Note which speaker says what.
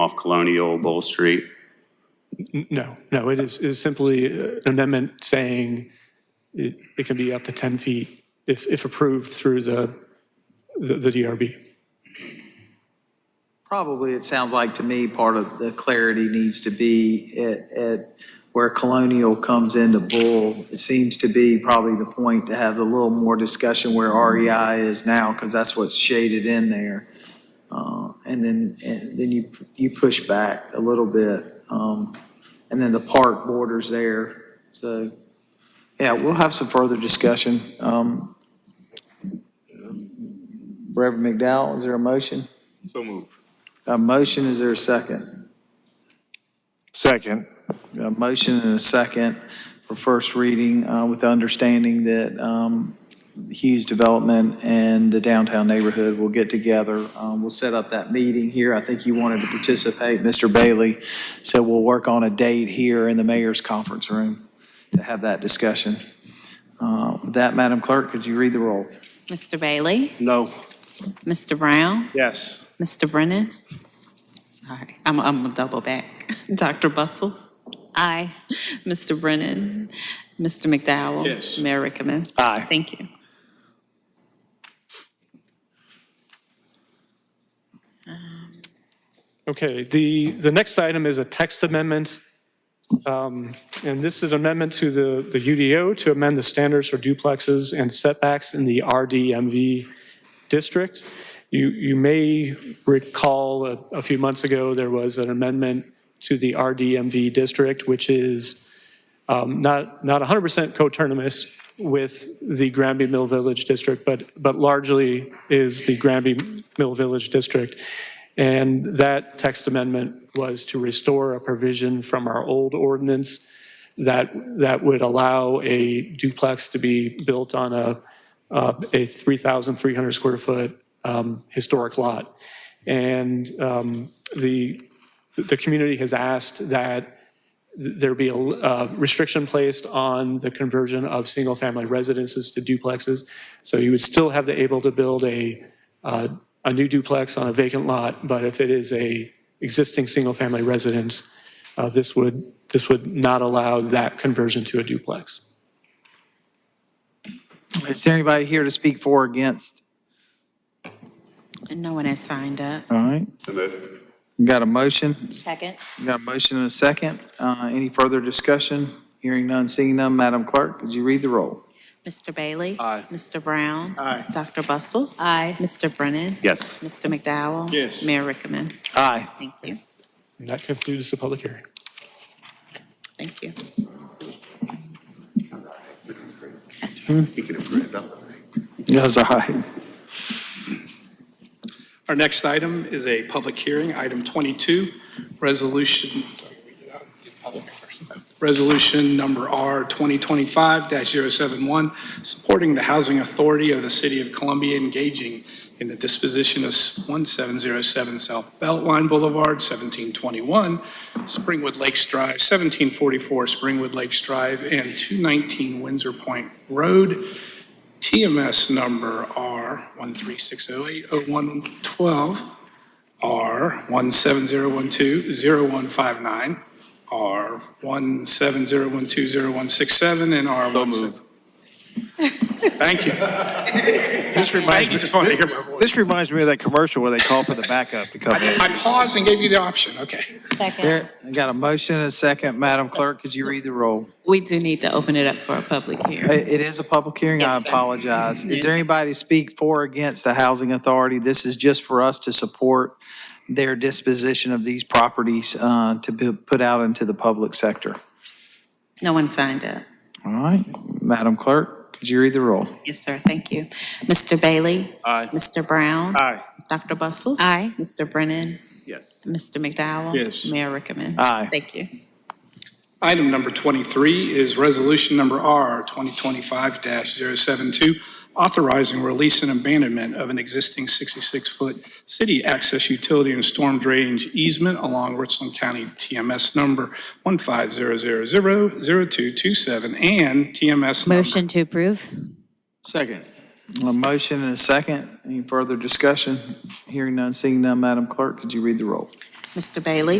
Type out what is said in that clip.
Speaker 1: off Colonial Bowl Street.
Speaker 2: No, no, it is, is simply uh, an amendment saying it, it can be up to 10 feet if, if approved through the, the the DRB.
Speaker 3: Probably, it sounds like to me, part of the clarity needs to be at, at where Colonial comes into Bull. It seems to be probably the point to have a little more discussion where REI is now, because that's what's shaded in there. Uh, And then, and then you, you push back a little bit. um, And then the park borders there. So, yeah, we'll have some further discussion. Um, Reverend McDowell, is there a motion?
Speaker 4: So move.
Speaker 3: A motion, is there a second?
Speaker 4: Second.
Speaker 3: A motion and a second for first reading uh, with the understanding that um, Hughes Development and the downtown neighborhood will get together. Um, We'll set up that meeting here. I think you wanted to participate, Mr. Bailey. So we'll work on a date here in the mayor's conference room to have that discussion. Uh, With that, Madam Clerk, could you read the roll?
Speaker 5: Mr. Bailey?
Speaker 4: No.
Speaker 5: Mr. Brown?
Speaker 4: Yes.
Speaker 5: Mr. Brennan? Sorry, I'm, I'm gonna double back. Dr. Bustles? Aye. Mr. Brennan? Mr. McDowell?
Speaker 4: Yes.
Speaker 5: Mayor Rickaman?
Speaker 3: Aye.
Speaker 5: Thank you.
Speaker 2: Okay, the, the next item is a text amendment. Um, And this is amendment to the, the UDO to amend the standards for duplexes and setbacks in the RDMV district. You, you may recall a, a few months ago, there was an amendment to the RDMV district, which is um, not, not 100% coterminous with the Granby Mill Village district, but, but largely is the Granby Mill Village district. And that text amendment was to restore a provision from our old ordinance that, that would allow a duplex to be built on a, uh, a 3,300 square foot um, historic lot. And um, the, the community has asked that there be a uh, restriction placed on the conversion of single-family residences to duplexes. So you would still have the able to build a, uh, a new duplex on a vacant lot, but if it is a existing single-family residence, uh, this would, this would not allow that conversion to a duplex.
Speaker 3: Is there anybody here to speak for or against?
Speaker 5: And no one has signed up.
Speaker 3: All right,
Speaker 1: So moved.
Speaker 3: got a motion?
Speaker 5: Second.
Speaker 3: Got a motion and a second. Uh, Any further discussion? Hearing none, seeing none. Madam Clerk, could you read the roll?
Speaker 5: Mr. Bailey?
Speaker 4: Aye.
Speaker 5: Mr. Brown?
Speaker 4: Aye.
Speaker 5: Dr. Bustles? Aye. Mr. Brennan?
Speaker 1: Yes.
Speaker 5: Mr. McDowell?
Speaker 4: Yes.
Speaker 5: Mayor Rickaman?
Speaker 3: Aye.
Speaker 5: Thank you.
Speaker 2: And that concludes the public hearing.
Speaker 5: Thank you.
Speaker 4: Hmm.
Speaker 3: Yes, aye.
Speaker 6: Our next item is a public hearing, item 22, resolution, resolution number R 2025-071, supporting the housing authority of the city of Columbia engaging in the disposition of 1707 South Beltline Boulevard, 1721, Springwood Lakes Drive, 1744 Springwood Lakes Drive, and 219 Windsor Point Road, TMS number R 13608-0112, R 17012-0159, R 17012-0167, and R 17... Thank you.
Speaker 4: This
Speaker 6: Thank
Speaker 4: reminds
Speaker 6: you,
Speaker 4: me,
Speaker 6: just wanted to hear my voice.
Speaker 4: this reminds me of that commercial where they call for the backup to come in.
Speaker 6: I paused and gave you the option, okay.
Speaker 3: There, I got a motion and a second. Madam Clerk, could you read the roll?
Speaker 5: We do need to open it up for a public
Speaker 3: I-
Speaker 5: hearing.
Speaker 3: It is a public hearing. I
Speaker 5: Yes, sir.
Speaker 3: apologize. Is there anybody to speak for or against the housing authority? This is just for us to support their disposition of these properties uh, to be put out into the public sector.
Speaker 5: No one signed up.
Speaker 3: All right, Madam Clerk, could you read the roll?
Speaker 5: Yes, sir, thank you. Mr. Bailey?
Speaker 4: Aye.
Speaker 5: Mr. Brown?
Speaker 4: Aye.
Speaker 5: Dr. Bustles? Aye. Mr. Brennan?
Speaker 1: Yes.
Speaker 5: Mr. McDowell?
Speaker 4: Yes.
Speaker 5: Mayor Rickaman?
Speaker 3: Aye.
Speaker 5: Thank you.
Speaker 6: Item number 23 is resolution number R 2025-072, authorizing release and abandonment of an existing 66-foot city access utility and storm drainage easement along Richland County TMS number 150000227 and TMS number
Speaker 7: Motion to approve?
Speaker 4: Second.
Speaker 3: A motion and a second. Any further discussion? Hearing none, seeing none. Madam Clerk, could you read the roll?
Speaker 5: Mr. Bailey?